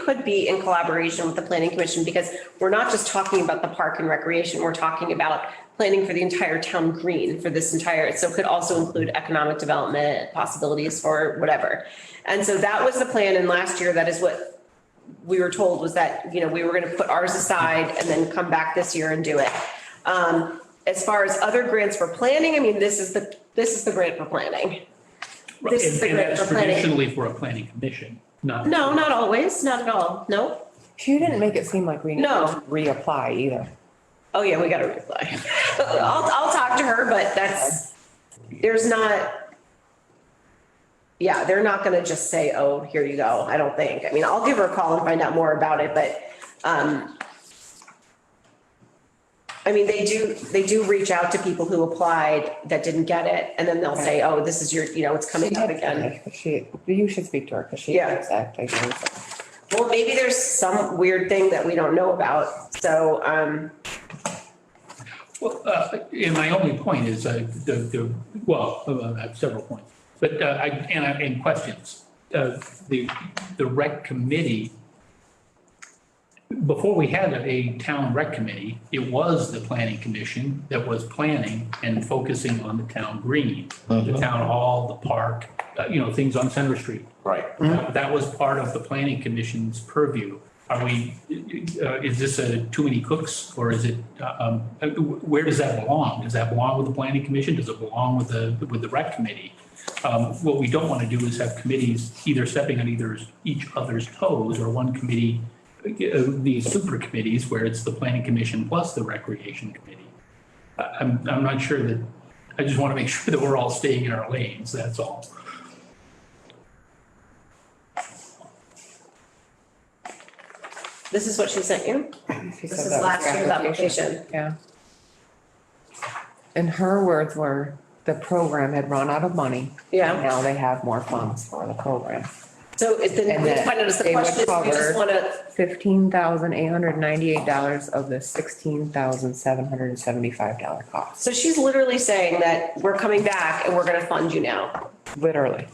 could be in collaboration with the planning commission because we're not just talking about the park and recreation, we're talking about planning for the entire town green for this entire, so it could also include economic development possibilities for whatever. And so that was the plan. And last year, that is what we were told was that, you know, we were gonna put ours aside and then come back this year and do it. Um, as far as other grants for planning, I mean, this is the, this is the grant for planning. This is And- the and grant that's for planning. Traditionally for a planning commission, not. No, not always, not at all, no. You didn't make it seem like we need to No. reapply either. Oh, yeah, we gotta reply. I'll, I'll talk to her, but that's, there's not, yeah, they're not gonna just say, oh, here you go, I don't think. I mean, I'll give her a call and find out more about it, but, um, I mean, they do, they do reach out to people who applied that didn't get it, and then they'll say, oh, this is your, you know, it's coming up again. She, you should speak to her because she Yeah. knows that. I think. Well, maybe there's some weird thing that we don't know about, so, um, Well, uh, and my only point is, uh, the, the, well, uh, I have several points, but, uh, I, and I, and questions. Uh, the, the rec committee, before we had a town rec committee, it was the planning commission that was planning and focusing on the town green, the town hall, the park, uh, you know, things on Center Street. Right. That was part of the planning commission's purview. Are we, uh, is this a too many cooks or is it, uh, um, uh, where does that belong? Does that belong with the planning commission? Does it belong with the, with the rec committee? Um, What we don't want to do is have committees either stepping on either, each other's toes or one committee, uh, these super committees where it's the planning commission plus the recreation committee. I- I'm, I'm not sure that, I just want to make sure that we're all staying in our lanes, that's all. this is what she sent you. She This said is that was last year's application. Yeah. And her words were, the program had run out of money. Yeah. And Now they have more funds for the program. So it then, And we that find out is the they would question is, we just cover- wanna, Fifteen thousand eight hundred ninety-eight dollars of the sixteen thousand seven hundred and seventy-five dollar cost, so she's literally saying that we're coming back and we're gonna fund you now. literally.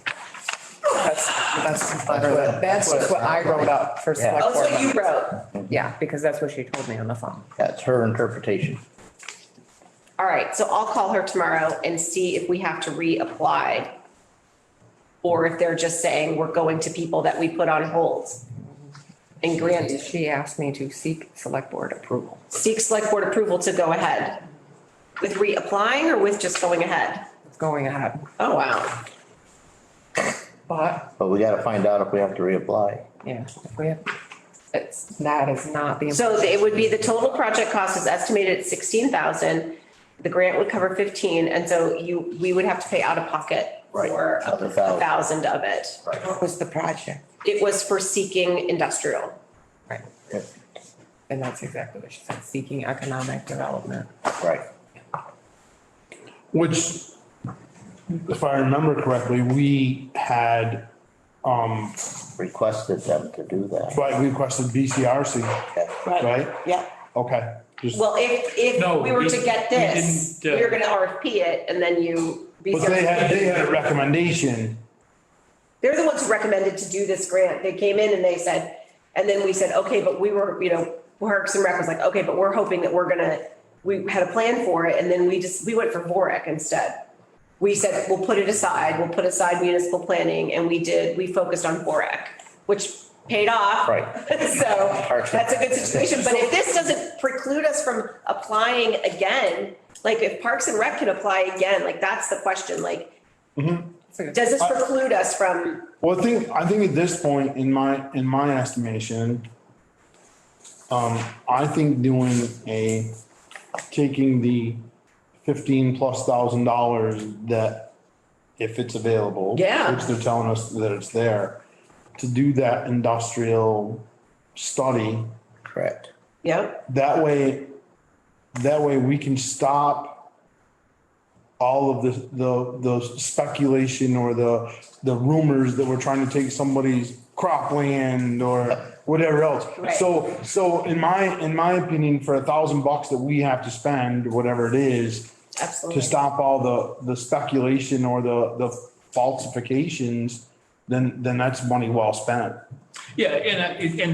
That's, that's literally, what- that's what that's what it I sounds like. wrote up for Yeah. select Oh, board so you members. wrote, Yeah, because that's what she told me on the phone. That's her interpretation. all right, so I'll call her tomorrow and see if we have to reapply. Or if they're just saying we're going to people that we put on hold. And grant, She asked me to seek select board approval. seek select board approval to go ahead. With reapplying or with just going ahead? It's going ahead, Oh, wow. but, But we gotta find out if we have to reapply. yeah, if we have, it's, that is not the. So it would be the total project cost is estimated at sixteen thousand. The grant would cover fifteen, and so you, we would have to pay out of pocket Right, for a another thousand. thousand of it. Right. was the project? It was for seeking industrial. Right, and that's exactly what she said, seeking economic development. Right. Which, if I remember correctly, we had, um, Requested them to do that. right, we requested BCRC, Okay. right? yeah. Okay, just, Well, if, No, if we were to we- get we this, we didn't, uh, were gonna RFP it and then you. but they had, they had a recommendation. They're the ones who recommended to do this grant. They came in and they said, and then we said, okay, but we were, you know, Parks and Rec was like, okay, but we're hoping that we're gonna, we had a plan for it, and then we just, we went for Vorak instead. We said, we'll put it aside, we'll put aside municipal planning, and we did, we focused on Vorak, which paid off. Right. So Parks and- that's a good situation, but if this doesn't preclude us from applying again, like if Parks and Rec can apply again, like that's the question, like, does Uh, this preclude us from Well, I think, I think at this point, in my, in my estimation, um, I think doing a, taking the fifteen plus thousand dollars that, if it's available. Yeah. Which they're telling us that it's there, to do that industrial study Correct. Yeah, That way, that way we can stop all of the, the, the speculation or the, the rumors that we're trying to take somebody's cropland or whatever else. Right. So, so in my, in my opinion, for a thousand bucks that we have to spend, whatever it is, to absolutely. stop all the, the speculation or the, the falsifications, then, then that's money well spent. Yeah, and, I- and